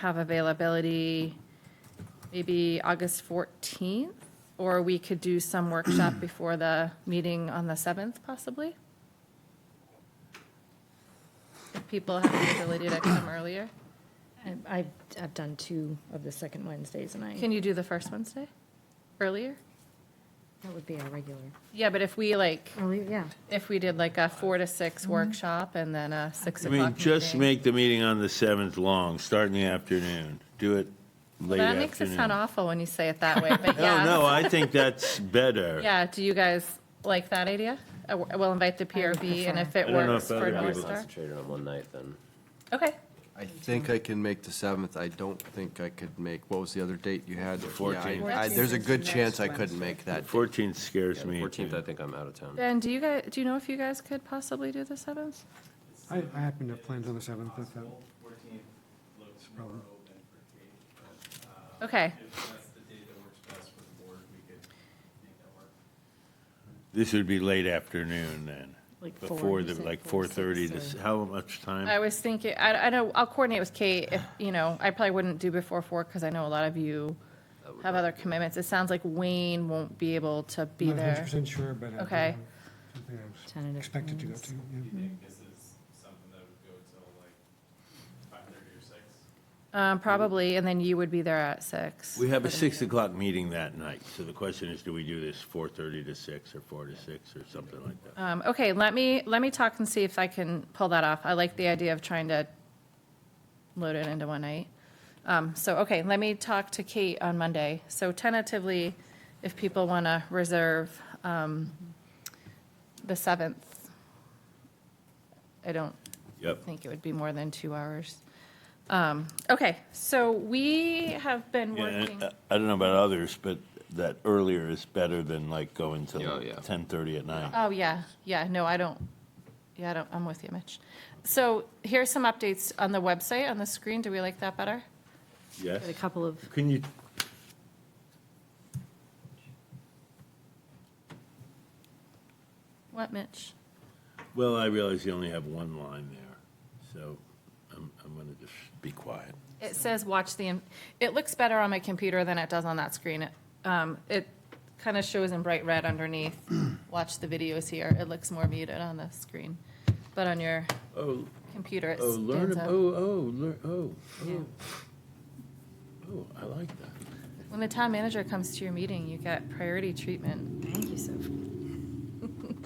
have availability maybe August 14th, or we could do some workshop before the meeting on the 7th possibly? If people have the ability to come earlier. I- I've, I've done two of the second Wednesdays, and I, Can you do the first Wednesday earlier? that would be our regular. Yeah, but if we like, Oh, yeah. if we did like a 4 to 6 workshop and then a 6 I o'clock meeting. mean, just make the meeting on the 7th long, start in the afternoon, do it late That afternoon. Oh, makes it sound awful when you say it that way, but yeah. No, no, I think that's better. Yeah, do you guys like that idea? Uh, We'll invite the PRB, and if it I don't know works if for other North people- Star. Concentrated on one night then. Okay, I think I can make the seventh. I don't think I could make, what was the other date you had? The 14th. There's a good chance I couldn't make that. 14th scares me. Fourteenth, I think I'm out of town. Ben, do you guys, do you know if you guys could possibly do the 7th? I, I happen to have plans on the seventh, if that. it's a problem. Okay, This would be late afternoon then, Like four, before you the, said like four to six, 4:30 to, or- s- how much time? I was thinking, I, I know, I'll coordinate with Kate, if, you know, I probably wouldn't do before 4, because I know a lot of you have other commitments. It sounds like Wayne won't be able to be I'm not hundred there. percent sure, but. I do Okay. have Something I was Tentative expected to go plans. to, yeah. Um, Probably, and then you would be there at 6. We have a 6 o'clock meeting that night, so the question is, do we do this 4:30 to 6 or 4 to 6 or something like that? Um, Okay, let me, let me talk and see if I can pull that off. I like the idea of trying to load it into one night. Um, So, okay, let me talk to Kate on Monday. So tentatively, if people want to reserve um, the 7th, I don't Yep. think it would be more than two hours. Um, Okay, so we have been Yeah, working, and, uh, I don't know about others, but that earlier is better than like going till Oh, Yeah, yeah. 10:30 at night. oh, yeah, yeah, no, I don't, yeah, I don't, I'm with you, Mitch. So here's some updates on the website, on the screen. Do we like that better? Yes? Got a couple of, Can you? What, Mitch? Well, I realize you only have one line there, so I'm, I'm going to just be quiet. It says watch the, in- it looks better on my computer than it does on that screen. It, um, It kind of shows in bright red underneath, watch the videos here. It looks more muted on the screen. But on your Oh, computer, it oh, learn, stands ab- out. oh, oh, learn, oh, oh. Oh, I like that. When the town manager comes to your meeting, you get priority treatment. thank you, Sophie.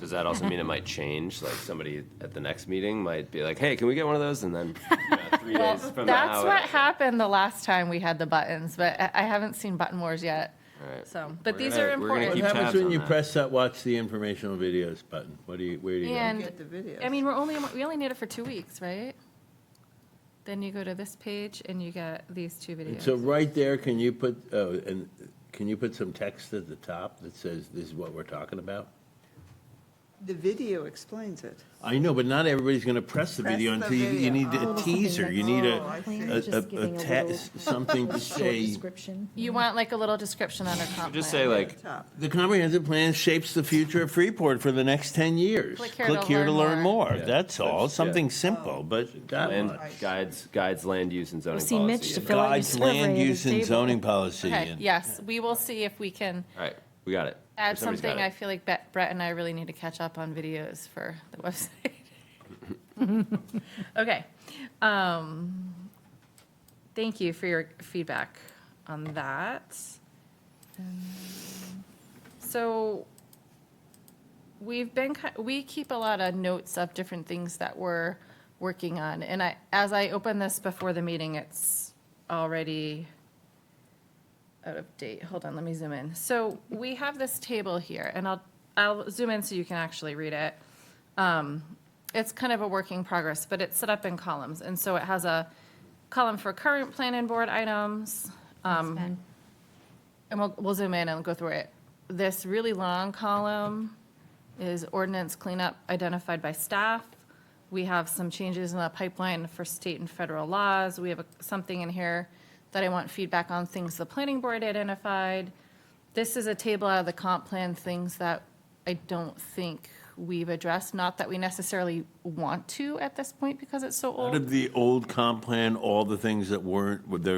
Does that also mean it might change? Like somebody at the next meeting might be like, hey, can we get one of those? And then yeah, three days from now. That's what happened the last time we had the buttons, but I I haven't seen button wars yet. Alright. So, but We're these gonna- are we're gonna important. What keep happens tabs when on you that. press that, watch the informational videos button? What do you, where do you go? And, I mean, we're only, we only need it for two weeks, right? Then you go to this page and you get these two And So videos. right there, can you put, oh, and can you put some text at the top that says, this is what we're talking about? The video explains it. I know, but not everybody's going to press the Press video the until you, you video. need a Oh. teaser. You need Oh, I a, see. a, a, a text, something to say. Description. You want like a little description on our comp plan. Just say like, Top. The comprehensive plan shapes the future of Freeport for the next ten years. Click here to learn more. Yeah. That's all. That's- yeah. Oh. Something simple, but that land, much. guides, guides land use and zoning Well, see, Mitch, policy. to and- fill- out your Guides survey land at the use and table. zoning policy. Okay, and- yes, we will see if we can All right, we got it. add Somebody's got something. I it. feel like Bet- Brett and I really need to catch up on videos for the website. Okay. um, Thank you for your feedback on that. Um, So we've been, ki- we keep a lot of notes of different things that we're working on. And I, as I open this before the meeting, it's already out of date. Hold on, let me zoom in. So we have this table here, and I'll, I'll zoom in so you can actually read it. Um, It's kind of a work in progress, but it's set up in columns. And so it has a column for current planning board items, um, Ben, and we'll, we'll zoom in and go through it. This really long column is ordinance cleanup identified by staff. We have some changes in the pipeline for state and federal laws. We have a- something in here that I want feedback on, things the planning board identified. This is a table out of the comp plan, things that I don't think we've addressed, not that we necessarily want to at this point because it's so old. Out of the old comp plan, all the things that weren't, were there